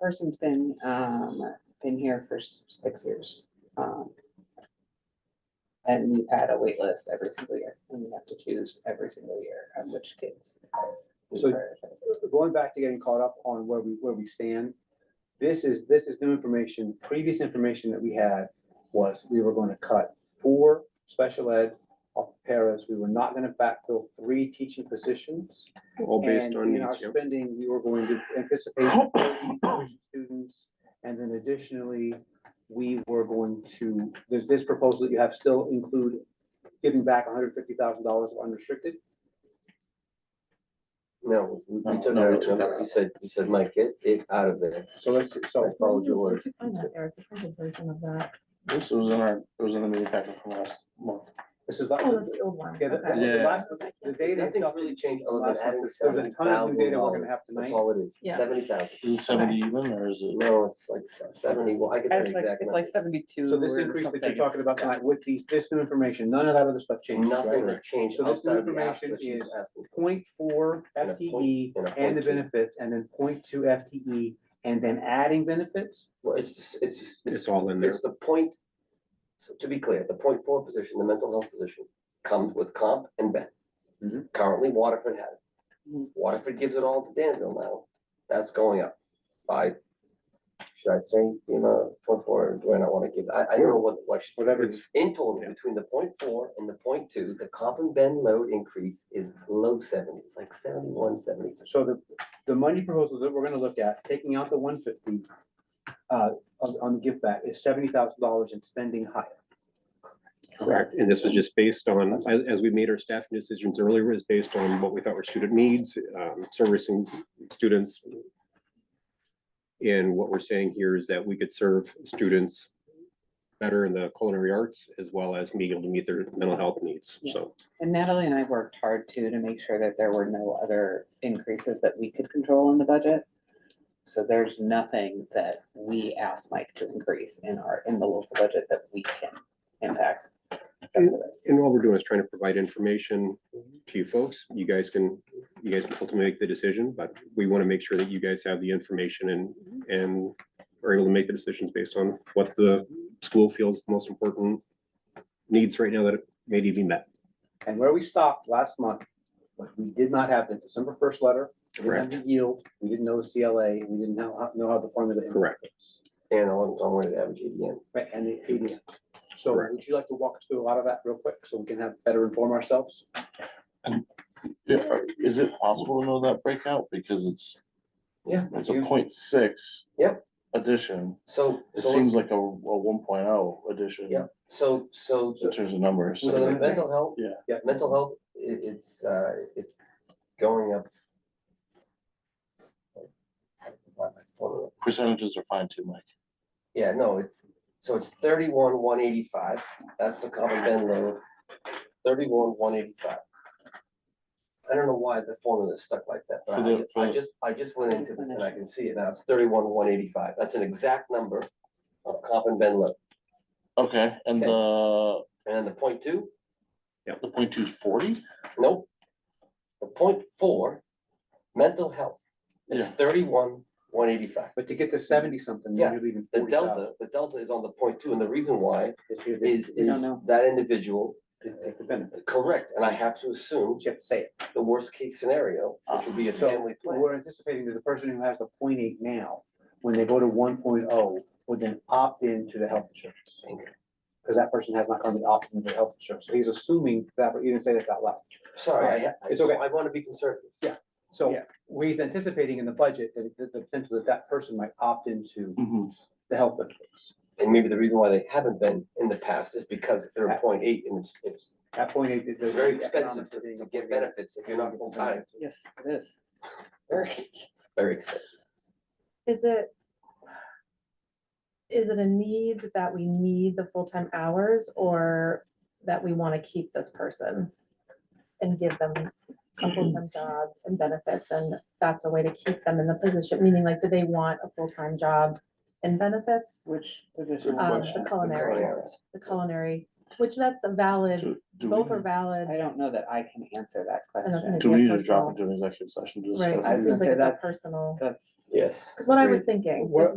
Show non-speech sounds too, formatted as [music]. person's been, um, been here for s- six years. um, And we've had a wait list every single year, and we have to choose every single year on which kids. we So- prioritize. going back to getting caught up on where we, where we stand, this is, this is new information. Previous information that we had was we were gonna cut four special ed off the paras. We were not gonna backfill three teaching positions. all based And on in our needs. yeah. Spending, we were going to [coughs] anticipate 30 tuition students. And then additionally, we were going to, there's this proposal that you have still include giving back hundred fifty thousand dollars of unrestricted. No, we we No, took no, out, we took that out. you said, you said, Mike, get it out of there. So let's, I so followed your Where'd word. you find that, Eric? The printed version of that. This was in our, it was in the meeting packet from last month. this is like. Oh, that's the old one. Yeah, the, Okay. the- the Yeah. last, the data Nothing's itself, really changed other than last month, adding there's a seventy ton of thousand new data we're dollars. gonna have That's tonight. all it is, Yeah. seventy thousand. Is it seventy even or is it? No, it's like se- seventy, well, I could tell It's you like, exactly. it's like seventy-two. so this or increase that you're something, talking about yeah. tonight with these, this new information, none of that other stuff changes, Nothing right? has changed So this outside of the ask information that she's is- asking. Point four And a FTE point- and a and the point two. benefits, and then point two FTE, and then adding benefits? Well, it's, just- it's, just- It's all in there. it's the point. So to be clear, the point four position, the mental health position, comes with comp and ben. Mhm. Currently Waterford had it. Mhm. Waterford gives it all to Danville now. That's going up by, should I say, you know, point four, or do I not wanna give, I, I don't know what, what. should- Whatever It's In total, Yeah. between the point four and the point two, the comp and ben load increase is low seventies, like seventy-one, seventy-two. So the, the money proposal that we're gonna look at, taking out the one fifty, uh, on, on the give back is seventy thousand dollars and spending higher. correct. And this was just based on, as, as we made our staffing decisions earlier, is based on what we thought were student needs, um, servicing students. And what we're saying here is that we could serve students better in the culinary arts as well as being able to meet their mental health needs. Yeah. So And Natalie and I worked hard too, to make sure that there were no other increases that we could control in the budget. So there's nothing that we asked Mike to increase in our, in the local budget that we can impact. except for this. And all we're doing is trying to provide information to you folks. You guys can, you guys can ultimately make the decision, but we want to make sure that you guys have the information and, and are able to make the decisions based on what the school feels the most important needs right now that may need to be met. And where we stopped last month, was we did not have the December first letter, we didn't have the yield, we didn't know the CLA, we didn't know, how- know how the formula. Correct. And on, on where the average ADN. Right, and the ADM. So Correct. would you like to walk us through a lot of that real quick, so we can have, better inform ourselves? Yeah, are- is it possible to know that breakout? Because it's, Yeah. it's a point six. Yep. Addition. So. It so seems like let's- a, a one oh addition. Yeah, so, so, In terms of numbers. so the mental health Yeah. Yeah. mental health, i- it's, uh, it's going up. Percentages are fine too, Mike. Yeah, no, it's, so it's thirty-one, one eighty-five, that's the common bend load, thirty-one, one eighty-five. I don't know why the formula is stuck like that, but For I the- ju- for I the- just, I just went into this and I can see it now, it's thirty-one, one eighty-five, that's an exact number of common bend load, Okay, and Okay. the, and then the point two, the point two is forty? Nope. The point four, mental health, is Yeah. thirty-one, one eighty-five. But to get to seventy something, Yeah, you're leaving The forty thousand. delta, the delta is on the point two, and the reason why is, You is don't know, that individual, didn't take the benefit, correct, and I have to assume but you have to say it. the worst-case scenario, which would be a Ah, So, family plan. We're anticipating that the person who has the point eight now, when they go to one oh, would then opt into the health insurance. Okay. Because that person has not currently opted into health insurance, so he's assuming that, but you didn't say this out loud. Sorry, I, ha- I, Ah, It's so okay. I wanna be conservative. So Yeah. he's anticipating in the budget that that the potential that that person might opt into the health benefits. And maybe the reason why they haven't been in the past is because they're Yeah. a point eight, and it's, it's, At point eight, it- it's there's very the expensive economics to of being to a get point eight. benefits if you're not full-time, Yes, it is. very, expensive. very expensive. Is it? Is it a need that we need the full-time hours or that we want to keep this person? And give them a full-time job and benefits and that's a way to keep them in the position, meaning like, do they want a full-time job and benefits? Which position? Um, the culinary, Correct. the culinary which that's a valid, Do do both are we, valid. I don't know that I can answer that I don't question. think- do we need to Personal. drop into an executive session to Right, discuss? I was gonna this? This seems like say it's a that's- personal- That's. Yes. That's what I Agreed. was thinking. What- This